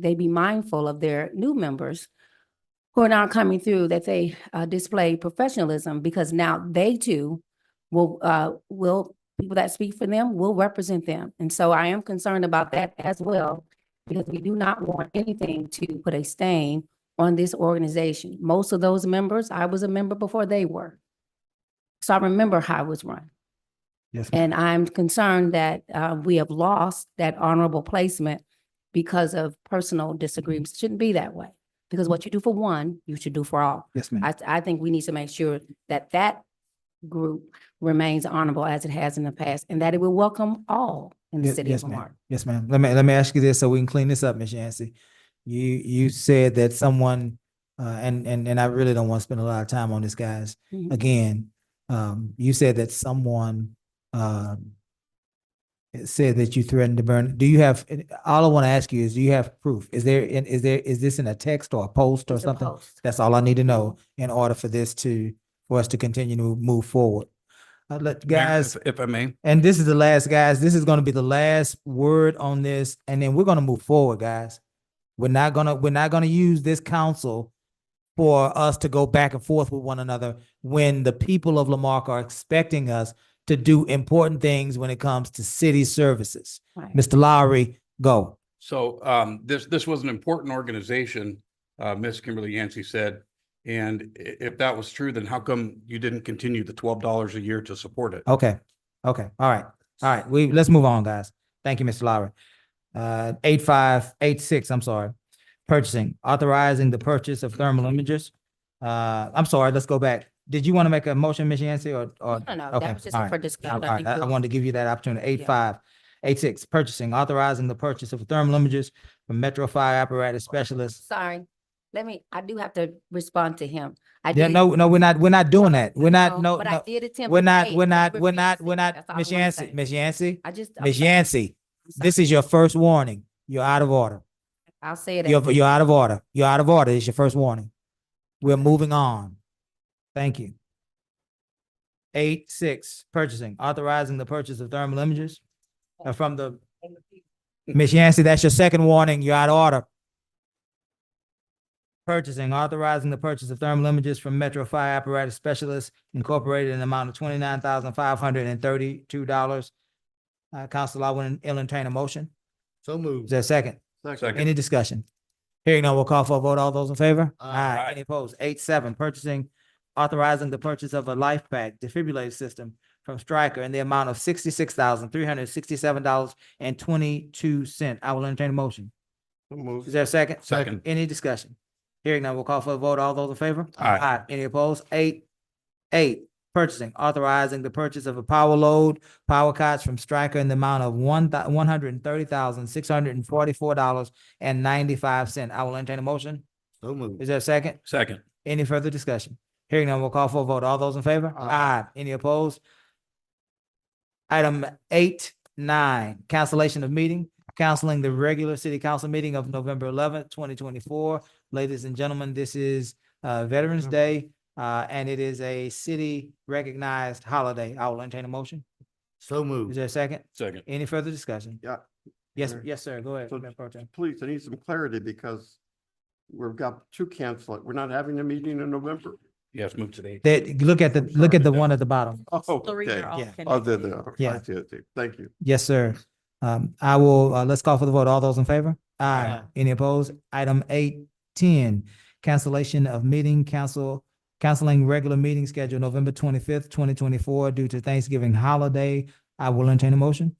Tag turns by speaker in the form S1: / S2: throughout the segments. S1: they be mindful of their new members who are now coming through, that they uh, display professionalism because now they too will, uh, will, people that speak for them will represent them. And so I am concerned about that as well because we do not want anything to put a stain on this organization. Most of those members, I was a member before they were. So I remember how it was run.
S2: Yes, ma'am.
S1: And I'm concerned that uh, we have lost that honorable placement because of personal disagreements. Shouldn't be that way. Because what you do for one, you should do for all.
S2: yes, ma'am.
S1: I, I think we need to make sure that that group remains honorable as it has in the past and that it will welcome all in the
S2: Ye-
S1: city of
S2: Yes, ma'am.
S1: Lamar.
S2: Yes, ma'am. Let me, let me ask you this so we can clean this up, Ms. Yancey. You, you said that someone, uh, and, and, and I really don't want to spend a lot of time on this, guys.
S1: Mhm.
S2: Again, um, you said that someone, um, it said that you threatened to burn. Do you have, all I want to ask you is, do you have proof? Is there, is there, is this in a text or a post or
S1: It's a
S2: something?
S1: post.
S2: That's all I need to know in order for this to, for us to continue to move forward. i let,
S3: Mayor,
S2: guys,
S3: if- If I may,
S2: and this is the last, guys. This is gonna be the last word on this, and then we're gonna move forward, guys. We're not gonna, we're not gonna use this council for us to go back and forth with one another when the people of Lamarck are expecting us to do important things when it comes to city services.
S1: Right.
S2: Mr. Lowry, go.
S3: so um, this, this was an important organization, uh, Ms. Kimberly Yancey said. And i- if that was true, then how come you didn't continue the twelve dollars a year to support it?
S2: Okay, okay, all right, all right. We, let's move on, guys. Thank you, Mr. Lowry. Uh, eight five, eight six, I'm sorry. Purchasing, authorizing the purchase of thermal imagers. Uh, I'm sorry, let's go back. Did you want to make a motion, Ms. Yancey, or, or?
S1: No, no,
S2: uh, okay,
S1: that was just
S2: all right.
S1: for
S2: All
S1: discussion. I
S2: right,
S1: think
S2: I I
S1: we'll-
S2: wanted to give you that opportunity. Eight
S1: Yeah.
S2: five, eight six, purchasing, authorizing the purchase of thermal imagers for Metro Fire Apparatus Specialists.
S1: Sorry, let me, I do have to respond to him. I
S2: Yeah,
S1: did-
S2: no, no, we're not, we're not doing that. We're not, no,
S1: But I
S2: no.
S1: did attempt.
S2: We're
S1: to
S2: not,
S1: say
S2: we're
S1: that
S2: not, we're
S1: refused
S2: not,
S1: it.
S2: we're not,
S1: That's all I
S2: Ms.
S1: wanna
S2: Yancey,
S1: say.
S2: Ms. Yancey,
S1: I just. I'm
S2: Ms.
S1: sorry.
S2: Yancey.
S1: I'm sorry.
S2: This is your first warning. You're out of order.
S1: I'll say it.
S2: You're,
S1: after.
S2: you're out of order. You're out of order. It's your first warning. We're moving on. Thank you. Eight, six, purchasing, authorizing the purchase of thermal imagers uh, from the, Ms. Yancey, that's your second warning. You're out of order. Purchasing, authorizing the purchase of thermal imagers from Metro Fire Apparatus Specialists Incorporated in the amount of twenty-nine thousand five hundred and thirty-two dollars. Uh, Council, I will entertain a motion.
S4: So
S2: Is
S4: moved.
S2: there a second?
S3: Second,
S2: Any discussion? Hearing none, we'll call for a vote. All those in favor?
S4: Aye.
S3: Aye.
S2: Any opposed? Eight seven, purchasing, authorizing the purchase of a life pack defibrillator system from Stryker in the amount of sixty-six thousand, three hundred sixty-seven dollars and twenty-two cent. I will entertain a motion.
S4: So
S2: Is
S4: moved.
S2: there a second?
S3: Second.
S2: Any discussion? Hearing none, we'll call for a vote. All those in favor?
S3: Aye.
S2: Any opposed? Eight, eight, purchasing, authorizing the purchase of a power load, power cots from Stryker in the amount of one one hundred and thirty thousand, six hundred and forty-four dollars and ninety-five cent. I will entertain a motion.
S4: So moved.
S2: Is there a second?
S3: second,
S2: Any further discussion? Hearing none, we'll call for a vote. All those in favor?
S4: Aye.
S2: Aye. Any opposed? Item eight, nine, cancellation of meeting, canceling the regular city council meeting of November eleventh, twenty twenty-four. Ladies and gentlemen, this is uh Veterans
S4: Mhm.
S2: Day, uh, and it is a city recognized holiday. I will entertain a motion.
S4: So
S2: Is
S4: moved.
S2: there a second?
S3: second.
S2: Any further discussion?
S5: Yeah.
S2: Yes,
S5: Mayor.
S2: yes, sir. Go ahead.
S5: So-
S2: Mayor Pro Tem.
S5: Please, I need some clarity because we've got to cancel it. We're not having a meeting in November.
S3: Yes, move to the eighth.
S2: That, look at the,
S5: I'm
S2: look
S5: sorry.
S2: at the one at the bottom.
S5: Oh, okay.
S2: Yeah.
S5: Other than, I see,
S2: Yeah.
S5: I see. thank you.
S2: Yes, sir. Um, I will, uh, let's call for the vote. All those in favor? Aye.
S4: Aye.
S2: Any opposed? Item eight, ten, cancellation of meeting, council, canceling regular meeting scheduled November twenty-fifth, twenty twenty-four due to Thanksgiving holiday. I will entertain a motion.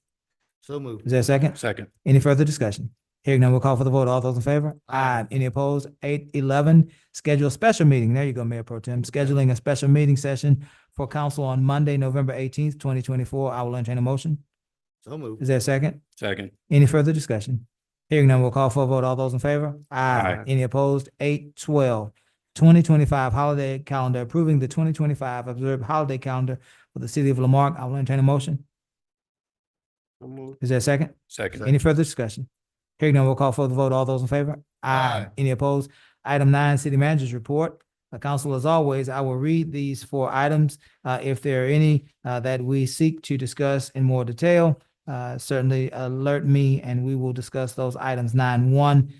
S4: So moved.
S2: Is there a second?
S3: Second,
S2: Any further discussion? Hearing none, we'll call for the vote. All those in favor?
S4: Aye.
S2: Aye. Any opposed? Eight eleven, schedule a special meeting. There you go, Mayor Pro Tem. Scheduling a special meeting session for council on Monday, November eighteenth, twenty twenty-four. I will entertain a motion.
S4: So moved.
S2: Is there a second?
S3: second,
S2: Any further discussion? Hearing none, we'll call for a vote. All those in favor?
S3: Aye.
S2: Any opposed? Eight twelve. Twenty twenty-five holiday calendar, approving the twenty twenty-five observed holiday calendar for the city of Lamarck. I will entertain a motion.
S5: So moved.
S2: Is there a second?
S3: second,
S2: Any further discussion? Hearing none, we'll call for the vote. All those in favor?
S3: Aye.
S2: Any opposed? Item nine, city manager's report. Uh, council, as always, I will read these four items, uh, if there are any, uh, that we seek to discuss in more detail. Uh, certainly alert me and we will discuss those items. Nine one